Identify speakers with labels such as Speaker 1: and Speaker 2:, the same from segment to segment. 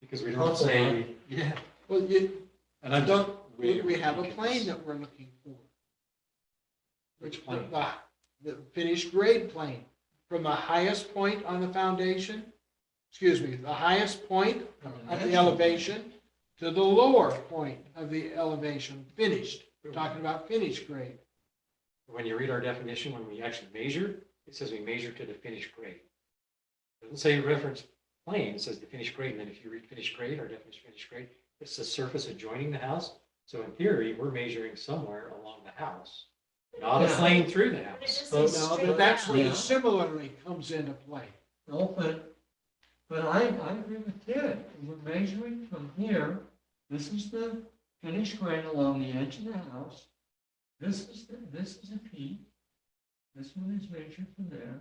Speaker 1: because we don't
Speaker 2: Proper,
Speaker 1: say, yeah,
Speaker 2: Well, you,
Speaker 1: and I'm just.
Speaker 2: don't, we,
Speaker 1: way
Speaker 2: we have a
Speaker 1: ridiculous.
Speaker 2: plane that we're looking for.
Speaker 1: Which plane?
Speaker 2: The, the finished grade plane, from the highest point on the foundation, excuse me, the highest point of the elevation to the lower point of the elevation, finished, We're talking about finished grade.
Speaker 1: When you read our definition, when we actually measure, it says we measure to the finished grade. It doesn't say reference plane, it says the finished grade, and then if you read finished grade, our definition of finished grade, it's the surface adjoining the house. So in theory, we're measuring somewhere along the house, not a
Speaker 3: Yeah.
Speaker 1: plane through the
Speaker 3: But it
Speaker 1: house.
Speaker 3: just
Speaker 2: So
Speaker 3: says
Speaker 2: now,
Speaker 3: straight
Speaker 2: but that's
Speaker 3: down.
Speaker 2: where
Speaker 3: Yeah.
Speaker 2: the similarly comes into play.
Speaker 4: No, but, but I, I agree with Ted. We're measuring from here. This is the finished grade along the edge of the house. This is, the this is a peak. This one is measured from there.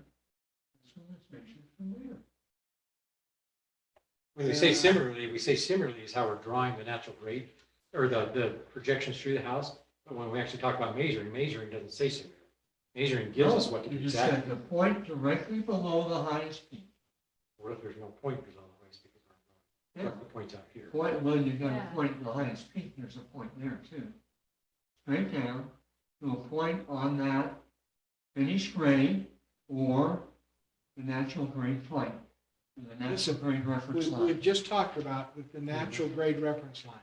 Speaker 4: This one is measured from there.
Speaker 1: When we say similarly, we say similarly is how we're drawing the natural grade or the, the projections through the house. But when we actually talk about measuring, measuring doesn't say similar. Measuring gives us what to do
Speaker 4: You just said
Speaker 1: exactly.
Speaker 4: the point directly below the highest peak.
Speaker 1: What if there's no pointers on the ways because
Speaker 4: Yeah.
Speaker 1: the points out here?
Speaker 4: Point, well, you got
Speaker 3: Yeah.
Speaker 4: a point at the highest peak, there's a point there too. Straight down to a point on that finished grade or the natural grade plane. and The natural grade reference
Speaker 2: We,
Speaker 4: line.
Speaker 2: we've just talked about with the natural grade reference line.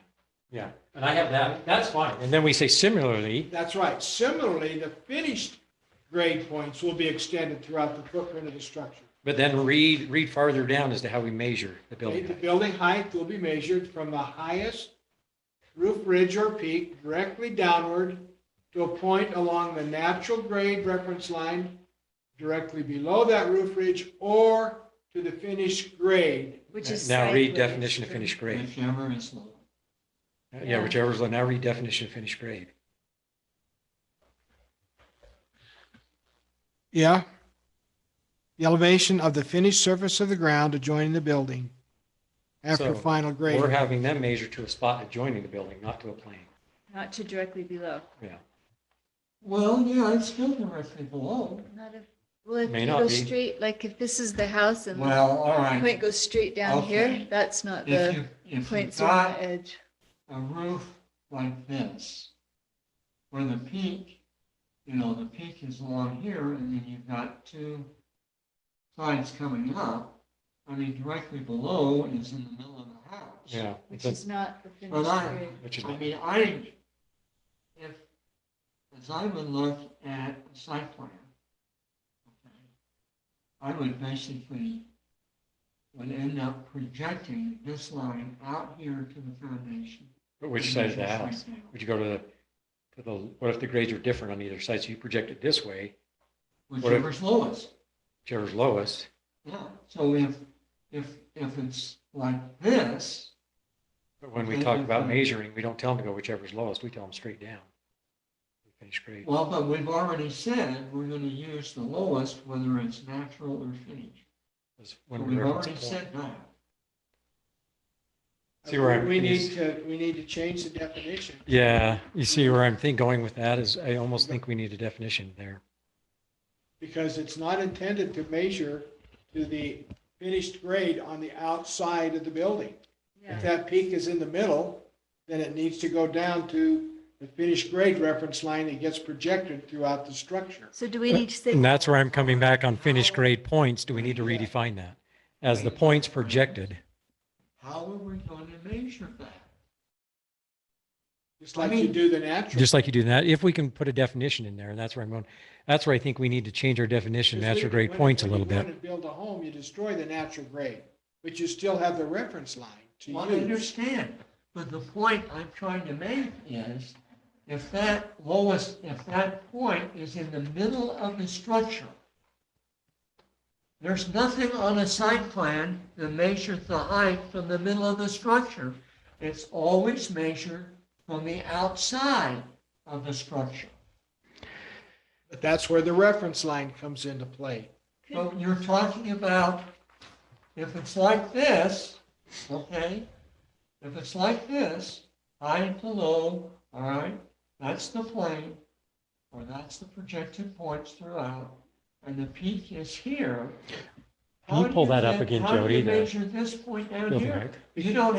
Speaker 1: Yeah, and I have that, that's fine. And then we say similarly,
Speaker 2: That's right. Similarly, the finished grade points will be extended throughout the footprint of the structure.
Speaker 1: but then read, read farther down as to how we measure the
Speaker 2: Okay,
Speaker 1: building.
Speaker 2: The
Speaker 1: height.
Speaker 2: building height will be measured from the highest roof ridge or peak directly downward to a point along the natural grade reference line directly below that roof ridge or to the finished grade.
Speaker 3: Which is.
Speaker 1: Now read
Speaker 3: slightly
Speaker 1: definition of
Speaker 3: extreme.
Speaker 1: finished grade.
Speaker 4: Whichever is lower.
Speaker 1: Yeah, whichever's, low. now read definition of finished grade.
Speaker 2: Yeah. The elevation of the finished surface of the ground adjoining the building
Speaker 1: after So,
Speaker 2: final grade.
Speaker 1: We're having them measure to a spot adjoining the building, not to a plane.
Speaker 3: Not to directly below.
Speaker 1: Yeah,
Speaker 4: Well, yeah, it's still directly below.
Speaker 3: Not if, well, if
Speaker 1: May
Speaker 3: you
Speaker 1: not
Speaker 3: go
Speaker 1: be.
Speaker 3: straight, like if this is the house and the
Speaker 4: Well, all
Speaker 3: point
Speaker 4: right.
Speaker 3: goes straight down here,
Speaker 4: Okay.
Speaker 3: that's not
Speaker 4: If
Speaker 3: the
Speaker 4: you, if you
Speaker 3: points on
Speaker 4: got
Speaker 3: the edge.
Speaker 4: a roof like this, where the peak, you know, the peak is along here, and then you've got two sides coming up. I mean, directly below is in the middle of the house.
Speaker 1: yeah.
Speaker 3: Which
Speaker 1: That's-
Speaker 3: is not the
Speaker 4: But
Speaker 3: finished
Speaker 4: I,
Speaker 3: grade.
Speaker 1: Which is
Speaker 4: I mean, I, if, as I would look at a site plan, okay, I would basically, would end up projecting this line out here to the foundation.
Speaker 1: But which side of the
Speaker 4: Just like
Speaker 1: house?
Speaker 4: that.
Speaker 1: Would you go to the, to the, what if the grades are different on either side? So you project it this way,
Speaker 4: Whichever's lowest,
Speaker 1: whichever's lowest.
Speaker 4: yeah. So if, if, if it's like this,
Speaker 1: But when we talk about measuring, we don't tell them to go whichever's lowest. We tell them straight down. Finished grade.
Speaker 4: well, but we've already said we're gonna use the lowest, whether it's natural or finished.
Speaker 1: is
Speaker 4: So
Speaker 1: when we
Speaker 4: We've
Speaker 1: reference
Speaker 4: already
Speaker 1: point.
Speaker 4: said that.
Speaker 1: See where I'm
Speaker 2: We need
Speaker 1: confused.
Speaker 2: to, we need to change the definition.
Speaker 1: Yeah, you see where I'm think going with that is I almost think we need a definition there.
Speaker 2: because it's not intended to measure to the finished grade on the outside of the building. If
Speaker 3: Yeah.
Speaker 2: that peak is in the middle, then it needs to go down to the finished grade reference line that gets projected throughout the structure.
Speaker 3: So do we need to say?
Speaker 1: And that's where I'm coming back on finished grade points. Do we need to redefine that? As the points projected,
Speaker 4: How are we going to measure that?
Speaker 2: Just like you do the natural.
Speaker 1: just like you do that, if we can put a definition in there, and that's where I'm going, that's where I think we need to change our definition of natural grade
Speaker 2: When-
Speaker 1: points a
Speaker 2: when
Speaker 1: little
Speaker 2: you
Speaker 1: bit.
Speaker 2: want to Build a home, you destroy the natural grade, but you still have the reference line to
Speaker 4: Well, I
Speaker 2: use.
Speaker 4: understand, but the point I'm trying to make is if that lowest, if that point is in the middle of the structure, there's nothing on a site plan that measures the height from the middle of the structure. It's always measured from the outside of the structure.
Speaker 2: But that's where the reference line comes into play.
Speaker 4: So you're talking about, if it's like this, okay, if it's like this, high to low, all right, that's the plane, or that's the projected points throughout, and the peak is here.
Speaker 1: Can you
Speaker 4: How do
Speaker 1: pull that up
Speaker 4: get-
Speaker 1: again,
Speaker 4: How do
Speaker 1: Jody,
Speaker 4: you
Speaker 1: the
Speaker 4: measure this point down
Speaker 1: building
Speaker 4: here?
Speaker 1: height?
Speaker 4: You don't